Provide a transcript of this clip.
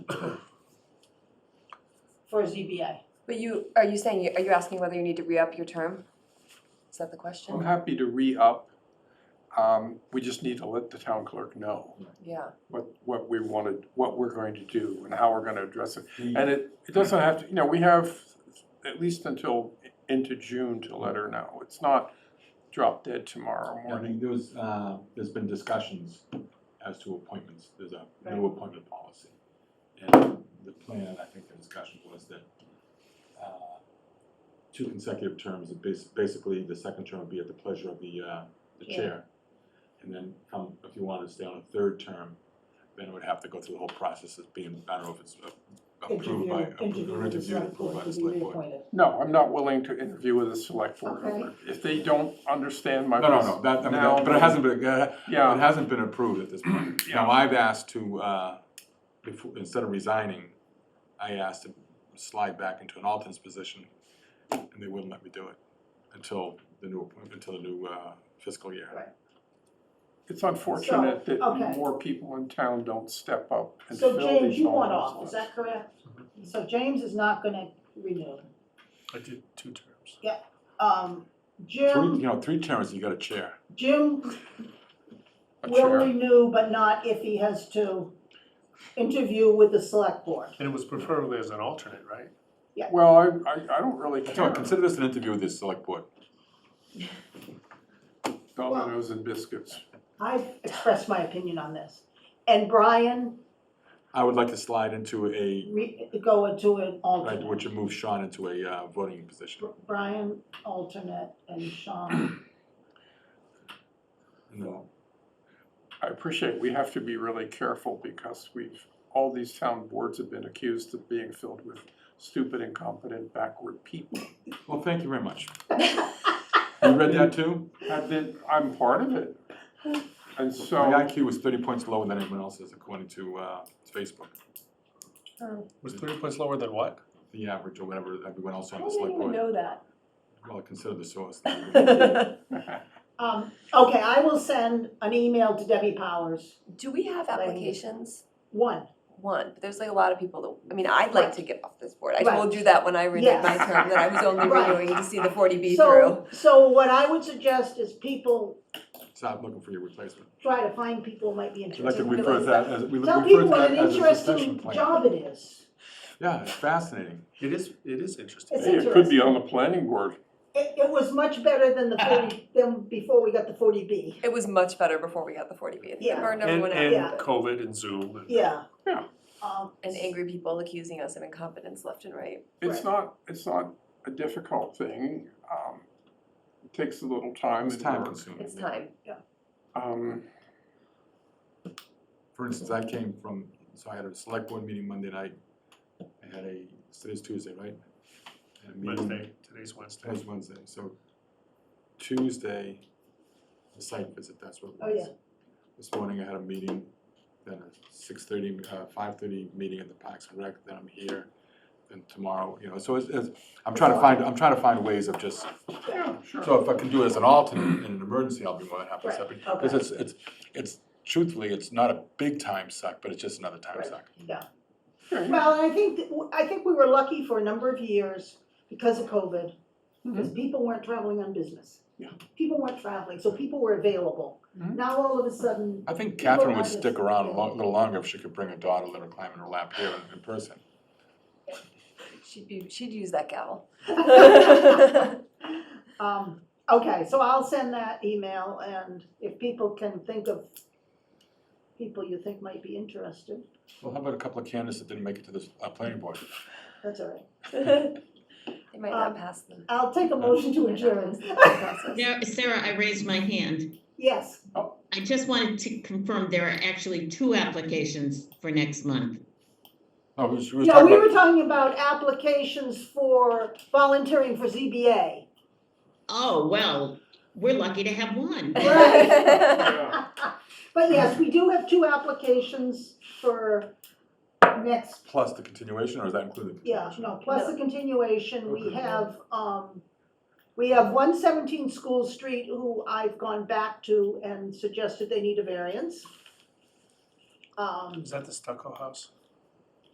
for ZBA. But you, are you saying, are you asking whether you need to re-up your term? Is that the I'm question? happy to re-up. Um, we just need to let the town clerk know Yeah, what, what we wanted, what we're going to do and how we're gonna address it. Mm-hmm. The- And it, it doesn't have to, you know, we have at least until into June to let her know. It's not drop dead tomorrow I morning. think there was, uh, there's been discussions as to appointments, there's a new appointment policy. And the plan, I think the discussion was that, uh, two consecutive terms, it bas- basically the second term would be at the pleasure of the, uh, the Yeah. chair. And then come, if you wanted to stay on a third term, then it would have to go through the whole process of being, I don't know if it's a- approved by, Interview, approved or with the interviewed, select approved board by the to be select board. reappointed. No, I'm not willing to interview with a select board Okay. member. If they don't understand my. No, no, no, that, I mean, now- that- but it hasn't been, uh, It Yeah, hasn't been approved at this point. Now, I've asked to, uh, before, instead of resigning, I asked to slide back into an alternate's position, and they wouldn't let me do it until the new, appoint- until the new uh, fiscal year. Right. it's unfortunate that okay. more people in town don't step up and fill So these James, you want off, homeless is ones. that correct? So James is not gonna renew. I did two terms. Um, Three, you Jim, know, three terms, you got a chair. Jim A will chair. renew, but not if he has to interview with the select board. And it was preferably as an alternate, right? Well, I, I, I don't really I tell care, you, consider this an interview with the select board. dominoes and biscuits. I've expressed my opinion on this. And Brian, I would like to slide into a, re- go into an I alternate. would you move Sean into a uh, voting position. Brian, alternate, and Sean. And then- I appreciate, we have to be really careful because we've, all these town boards have been accused of being filled with stupid, incompetent, backward people. Well, thank you very much. You read that too? I've been, I'm part of it. And My so, IQ was thirty points lower than anyone else's according to uh, Facebook. Was three points lower than what? the average or whatever everyone else I on the didn't select even board. know that. Well, consider the source. Um, okay, I will send an email to Debbie Powers, Do we have Like- applications? one. One, but there's like a lot of people that, I mean, I'd like to get off this board. I Right. told you that when I renewed my Yes. term, that I was only Right. renewing to see the forty B through. So, so what I would suggest is people Stop looking for your replacement. try to find people who might be I'd like to interested. we- refer to that as, we Tell refer people to what that an as a succession interesting plan. job it is. Yeah, it's fascinating. It is, it is interesting. It's hey, it could be on the planning board. It, it was much better than the forty, than before we got the forty B. It was much better before we got the forty B. I think Yeah. it burned And, everyone and out. but- COVID and Zoom and. Yeah. Yeah. Um, And angry people accusing us of incompetence left and right. It's not, it's not a difficult thing. Um, It takes a little time. It's and time work. consuming. Mm-hmm. It's time. Um, For instance, I came from, so I had a select board meeting Monday night. I had a, today's Tuesday, right? I had a meeting- Wednesday, today's Wednesday. Today's Wednesday, so Tuesday, the site visit, that's what it Oh, was. yeah. This morning I had a meeting, then a six thirty, uh, five thirty meeting at the Parks and Rec, then I'm here, then tomorrow, you know, so it's, it's, I'm trying to find, I'm trying to find ways of just, yeah, sure. so if I can do it as an alternate in an emergency, I'll be more than happy to step in. Right, okay. Because it's, it's, it's, truthfully, it's not a big time suck, but it's just another time Right. suck. Sure, yeah. Well, I think, that w- I think we were lucky for a number of years because of COVID, Mm-hmm. because people weren't traveling on business. Yeah. People weren't traveling, so people were available. Mm-hmm. Mhm. Now all of a sudden, I think People Catherine are would just- stick around a lo- little longer if she could bring her daughter, let her climb in her lap here in- in person. She'd be, she'd use that gavel. um, okay, so I'll send that email and if people can think of people you think might be interested, Well, how about a couple of candidates that didn't make it to this uh, planning board? that's all right. They might Um, not pass them. I'll Uh, take a motion to adjourn. Sarah, Sarah, I raised my hand. Yes, I just wanted to confirm there are actually two applications for next month. Oh, we was, we was yeah, talking we were about, talking about applications for volunteering for ZBA. Oh, well, we're lucky to have one. Right. But yes, we do have two applications for next, plus the continuation, or is that included? yeah, no, plus the continuation, we Okay. have, um, we have one seventeen School Street who I've gone back to and suggested they need a variance. Um, Is that the stucco house?